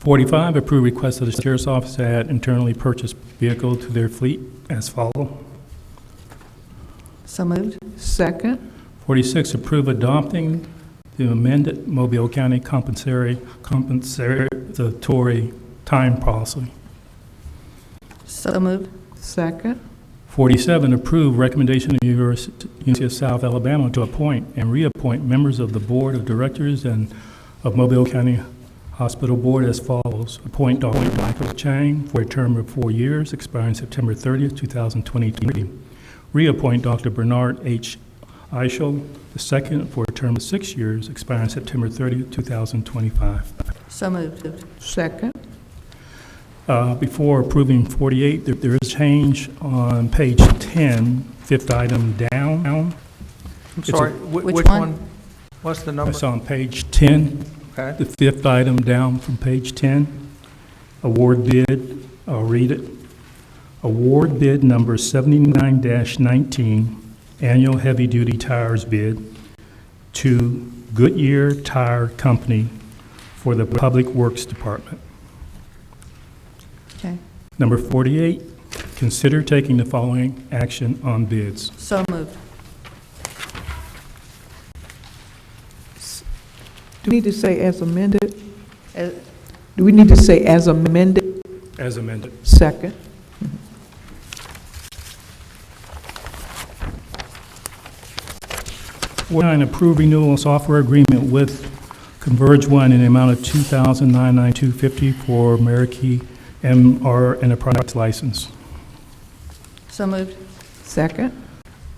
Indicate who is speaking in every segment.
Speaker 1: Forty-five, approve request of the sheriff's office to add internally purchased vehicle to their fleet as follow.
Speaker 2: So moved.
Speaker 3: second,
Speaker 1: Forty-six, approve adopting the amended Mobile County compensatory, compensatory time policy.
Speaker 2: So moved.
Speaker 3: second,
Speaker 1: 47, approve recommendation of Univers- University of South Alabama to appoint and reappoint members of the Board of Directors and of Mobile County Hospital Board as follows. Appoint Dr. Michael Chang for a term of four years, expiring September 30th, 2023. Reappoint Dr. Bernard H. Eichel II for a term of six years, expiring September 30th, 2025.
Speaker 2: So moved.
Speaker 3: second,
Speaker 1: Uh, Before approving 48, there- there is change on page 10, fifth item down.
Speaker 4: I'm
Speaker 1: It's a-
Speaker 4: sorry, whi-
Speaker 2: Which
Speaker 4: which
Speaker 2: one?
Speaker 4: one? What's the number?
Speaker 1: That's on page 10,
Speaker 4: Okay.
Speaker 1: the fifth item down from page 10. Award bid, I'll read it. Award bid number 79-19, annual heavy-duty tires bid to Goodyear Tire Company for the Public Works Department.
Speaker 2: Okay.
Speaker 1: Number 48, consider taking the following action on bids.
Speaker 2: So moved.
Speaker 3: Do we need to say as amended?
Speaker 2: As-
Speaker 3: Do we need to say as amended?
Speaker 1: As amended.
Speaker 3: Second,
Speaker 1: Nine, approve renewal of software agreement with Converge One in the amount of two thousand nine nine two fifty for Meraki MR Enterprise license.
Speaker 2: So moved.
Speaker 3: second,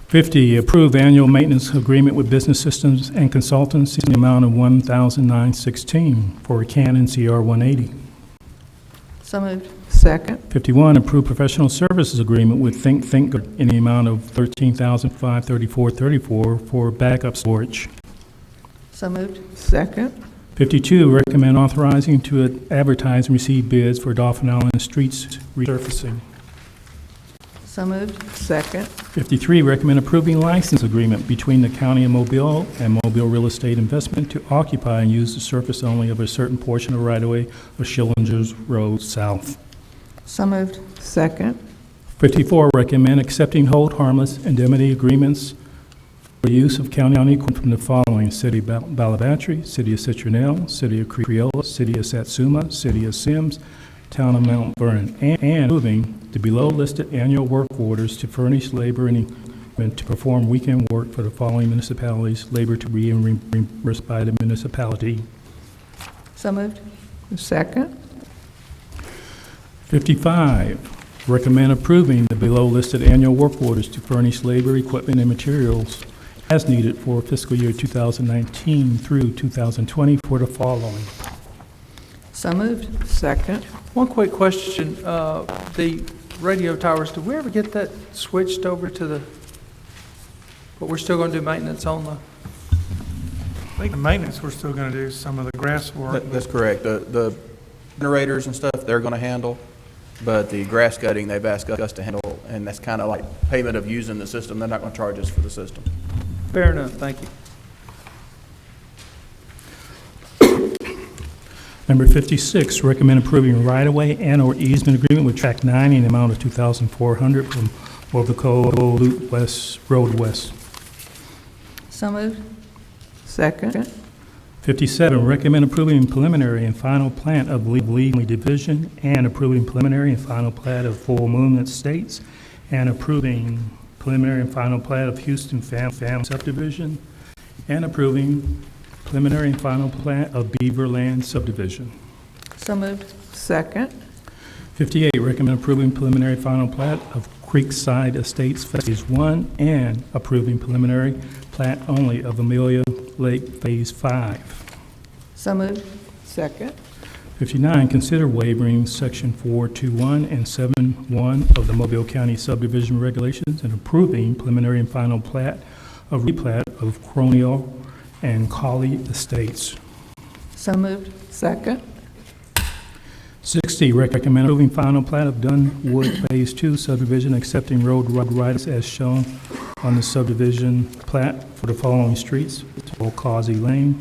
Speaker 1: Fifty, approve annual maintenance agreement with Business Systems and Consultants in the amount of one thousand nine sixteen for Canon CR one eighty.
Speaker 2: So moved.
Speaker 3: second,
Speaker 1: Fifty-one, approve professional services agreement with Think Think in the amount of thirteen thousand five thirty-four thirty-four for backup storage.
Speaker 2: So moved.
Speaker 3: second,
Speaker 1: 52, recommend authorizing to advertise and receive bids for Dauphin Island streets resurfacing.
Speaker 2: So moved.
Speaker 3: second,
Speaker 1: 53, recommend approving license agreement between the county of Mobile and Mobile Real Estate Investment to occupy and use the surface only of a certain portion of right-of-way of Schillinger's Road South.
Speaker 2: So moved.
Speaker 3: second,
Speaker 1: 54, recommend accepting hold harmless indemnity agreements for use of county on equipment from the following: City of Bal- Balabatry, City of Citronelle, City of Creola, City of Satsuma, City of Sims, Town of Mount Vernon, and- and moving the below-listed annual work orders to furnish labor and equipment to perform weekend work for the following municipalities, labor to be reimbursed by the municipality.
Speaker 2: So moved.
Speaker 3: second,
Speaker 1: 55, recommend approving the below-listed annual work orders to furnish labor, equipment, and materials as needed for fiscal year 2019 through 2020 for the following.
Speaker 2: So moved.
Speaker 3: second.
Speaker 4: One quick question, uh, the radio towers, did we ever get that switched over to the, but we're still going to do maintenance on the,
Speaker 5: I think the maintenance, we're still gonna do some of the grass work.
Speaker 6: That- That's correct. The, the generators and stuff, they're gonna handle, but the grass cutting, they've asked us to handle, and that's kinda like payment of using the system. They're not gonna charge us for the system.
Speaker 4: fair enough, thank you.
Speaker 1: Number 56, recommend approving right-of-way and/or easement agreement with Track 9 in the amount of 2,400 from Mobico Loop West Road West.
Speaker 2: So moved.
Speaker 3: Second,
Speaker 1: 57, recommend approving preliminary and final plat of Lee Lee Division and approving preliminary and final plat of Full Moon Estates and approving preliminary and final plat of Houston Fam Fam subdivision and approving preliminary and final plat of Beaver Land subdivision.
Speaker 2: So moved.
Speaker 3: second,
Speaker 1: 58, recommend approving preliminary final plat of Creekside Estates Phase 1 and approving preliminary plat only of Amelia Lake Phase 5.
Speaker 2: So moved.
Speaker 3: second,
Speaker 1: 59, consider waiving Section 421 and 71 of the Mobile County subdivision regulations and approving preliminary and final plat of replat of Cronio and Colley Estates.
Speaker 2: So moved.
Speaker 3: second,
Speaker 1: 60, recommend approving final plat of Dunwood Phase 2 subdivision, accepting road ri- rights as shown on the subdivision plat for the following streets, Cauzy Lane,